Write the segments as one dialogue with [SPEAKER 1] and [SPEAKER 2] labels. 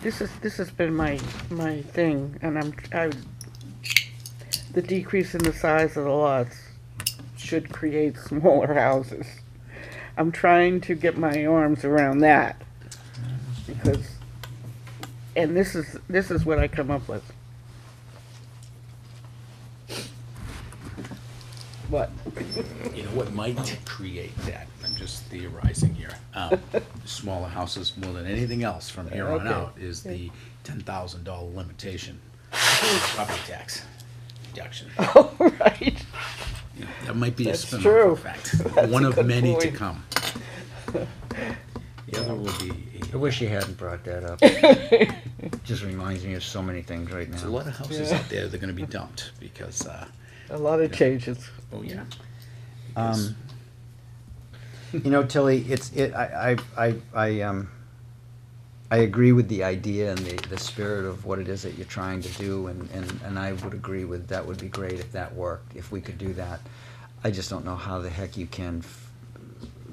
[SPEAKER 1] This is, this has been my, my thing, and I'm, I, the decrease in the size of the lots should create smaller houses. I'm trying to get my arms around that, because, and this is, this is what I come up with. What?
[SPEAKER 2] You know what might create that? I'm just theorizing here. Um, Smaller houses more than anything else from here on
[SPEAKER 1] Okay.
[SPEAKER 2] out is the ten thousand dollar limitation. for Property tax deduction.
[SPEAKER 1] All right.
[SPEAKER 2] You know, That might be a
[SPEAKER 1] That's
[SPEAKER 2] spin-off
[SPEAKER 1] true.
[SPEAKER 2] effect,
[SPEAKER 1] That's
[SPEAKER 2] one
[SPEAKER 1] a
[SPEAKER 2] of
[SPEAKER 1] good
[SPEAKER 2] many to
[SPEAKER 1] point.
[SPEAKER 2] come. The other will be,
[SPEAKER 3] I wish you hadn't brought that up. Just reminds me of so many things right
[SPEAKER 2] there's a
[SPEAKER 3] now.
[SPEAKER 2] lot of houses out there that are gonna be dumped because, uh,
[SPEAKER 1] A lot of changes.
[SPEAKER 2] oh yeah. Because-
[SPEAKER 3] Um, You know, Tilly, it's, it, I, I, I, I, um, I agree with the idea and the, the spirit of what it is that you're trying to do, and, and, and I would agree with, that would be great if that worked, if we could do that. I just don't know how the heck you can f-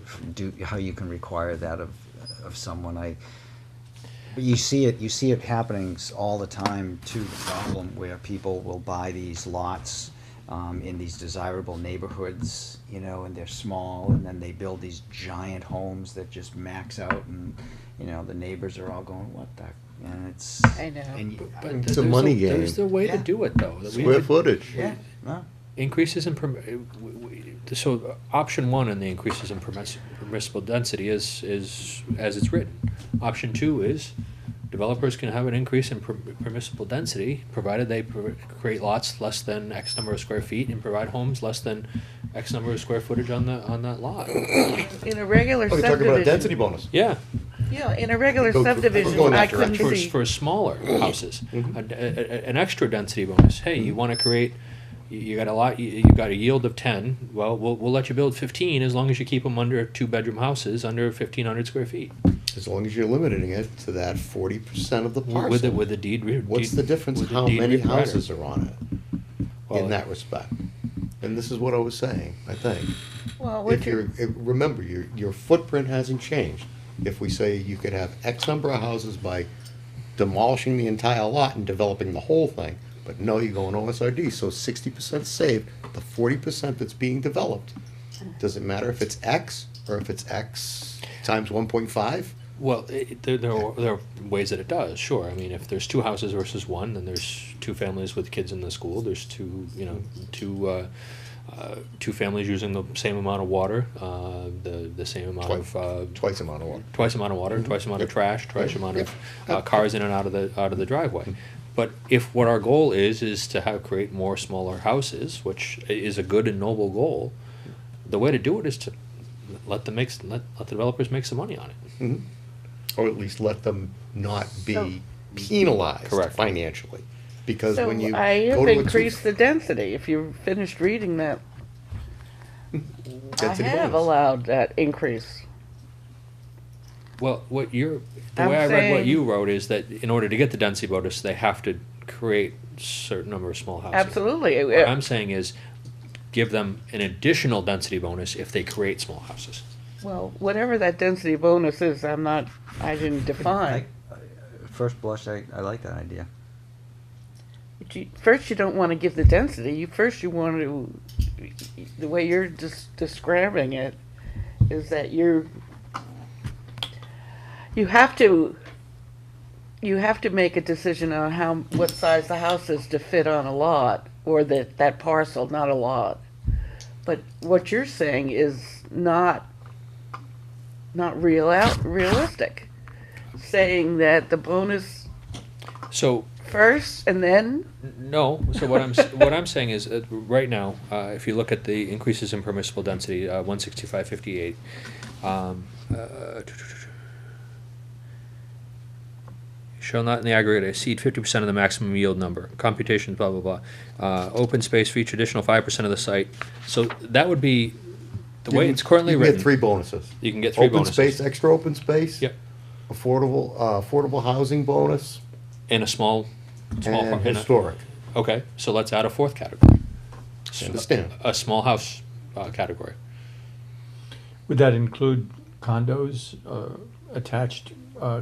[SPEAKER 3] f- do, how you can require that of, of someone, I, but you see it, you see it happening s- all the time too, the problem where people will buy these lots um, in these desirable neighborhoods, you know, and they're small, and then they build these giant homes that just max out, and, you know, the neighbors are all going, what the, and it's.
[SPEAKER 1] I know.
[SPEAKER 3] and you-
[SPEAKER 4] But
[SPEAKER 3] I-
[SPEAKER 4] th-
[SPEAKER 5] It's a
[SPEAKER 4] there's
[SPEAKER 5] money game.
[SPEAKER 4] There's the way to
[SPEAKER 3] Yeah.
[SPEAKER 4] do it, though. that we
[SPEAKER 5] Square
[SPEAKER 4] could-
[SPEAKER 5] footage.
[SPEAKER 3] Yeah, no,
[SPEAKER 4] Increases in, perm- uh, w- w- so uh, option one in the increases in permiss- permissible density is, is as it's written. Option two is developers can have an increase in per- permissible density, provided they pr- create lots less than X number of square feet and provide homes less than X number of square footage on the, on that lot.
[SPEAKER 1] In a regular
[SPEAKER 5] Oh, you're talking about a density
[SPEAKER 1] subdivision,
[SPEAKER 5] bonus.
[SPEAKER 4] Yeah.
[SPEAKER 1] yeah, in a regular
[SPEAKER 5] Go- go- go
[SPEAKER 1] subdivision,
[SPEAKER 5] in that
[SPEAKER 1] I couldn't
[SPEAKER 4] for,
[SPEAKER 1] see.
[SPEAKER 4] for smaller
[SPEAKER 5] Mm-hmm.
[SPEAKER 4] houses, a d- a- a- an extra density bonus. Hey, you want to create, you, you got a lot, you, you got a yield of ten. Well, we'll we'll let you build fifteen as long as you keep them under two bedroom houses under fifteen hundred square feet
[SPEAKER 5] As long as you're limiting it to that forty percent of the parcel.
[SPEAKER 4] with the, with the deed. Re-
[SPEAKER 5] What's
[SPEAKER 4] deed-
[SPEAKER 5] the difference
[SPEAKER 4] with the
[SPEAKER 5] how
[SPEAKER 4] deed
[SPEAKER 5] many
[SPEAKER 4] reprider.
[SPEAKER 5] houses are on it
[SPEAKER 4] Well,
[SPEAKER 5] in that respect? And this is what I was saying, I think.
[SPEAKER 1] Well,
[SPEAKER 5] If
[SPEAKER 1] what
[SPEAKER 5] you're,
[SPEAKER 1] you,
[SPEAKER 5] if- remember, your, your footprint hasn't changed. If we say you could have X number of houses by demolishing the entire lot and developing the whole thing, but no, you're going OSRD, so sixty percent saved, the forty percent that's being developed. Doesn't matter if it's X or if it's X times one point five?
[SPEAKER 4] Well, it, it- there, there, are, there are ways that it does. Sure, I mean, if there's two houses versus one, then there's two families with kids in the school. There's two, you know, two. Uh, uh, two families using the same amount of water, uh, the the same amount of uh,
[SPEAKER 5] Twice amount of water.
[SPEAKER 4] twice amount of water, twice amount of
[SPEAKER 5] Mm-hmm. Yep.
[SPEAKER 4] trash, twice amount of
[SPEAKER 5] Yep. Mm-hmm.
[SPEAKER 4] uh, cars in and out of the out of the driveway. But if what our goal is is to have create more smaller houses, which i- is a good and noble goal, the way to do it is to let the makes let, let the developers make some money on it.
[SPEAKER 5] Or at least let them not
[SPEAKER 1] So-
[SPEAKER 5] be penalized
[SPEAKER 4] Correct.
[SPEAKER 5] financially. Because
[SPEAKER 1] so
[SPEAKER 5] when you
[SPEAKER 1] I
[SPEAKER 5] go
[SPEAKER 1] have
[SPEAKER 5] to a two-
[SPEAKER 1] increased the density, if you finished reading that. I
[SPEAKER 5] Density
[SPEAKER 1] have
[SPEAKER 5] bonus.
[SPEAKER 1] allowed that increase.
[SPEAKER 4] Well, what you're the
[SPEAKER 1] I'm
[SPEAKER 4] way I read what
[SPEAKER 1] saying-
[SPEAKER 4] you wrote is that in order to get the density bonus, they have to create certain number of small houses.
[SPEAKER 1] Absolutely.
[SPEAKER 4] What I'm saying is, give them an additional density bonus if they create small houses.
[SPEAKER 1] Well, whatever that density bonus is, I'm not, I didn't
[SPEAKER 3] I,
[SPEAKER 1] define.
[SPEAKER 3] at first blush, I, I like that idea.
[SPEAKER 1] But you- First, you don't want to give the density. You First, you want to, the way you're just describing it, is that you're, you have to, you have to make a decision on how, what size the house is to fit on a lot, or that, that parcel, not a lot. But what you're saying is not, not real out, realistic. Saying that the bonus
[SPEAKER 4] So
[SPEAKER 1] first and then
[SPEAKER 4] No. So what I'm s- what I'm saying is, uh, right now, uh, if you look at the increases in permissible density, uh, one sixty five fifty eight. Um, uh, Shall not in the aggregate exceed fifty percent of the maximum yield number. Computations, blah blah blah. Uh, open space feature additional five percent of the site. So that would be the way it's currently
[SPEAKER 5] You can
[SPEAKER 4] written.
[SPEAKER 5] get three bonuses.
[SPEAKER 4] You can get three
[SPEAKER 5] Open
[SPEAKER 4] bonuses.
[SPEAKER 5] space, extra open space.
[SPEAKER 4] Yep.
[SPEAKER 5] Affordable, uh, affordable housing bonus
[SPEAKER 4] in a small, small
[SPEAKER 5] and
[SPEAKER 4] part- in a-
[SPEAKER 5] historic.
[SPEAKER 4] Okay, so let's add a fourth category. S-
[SPEAKER 5] Understand.
[SPEAKER 4] A small house uh, category.
[SPEAKER 6] Would that include condos uh, attached uh,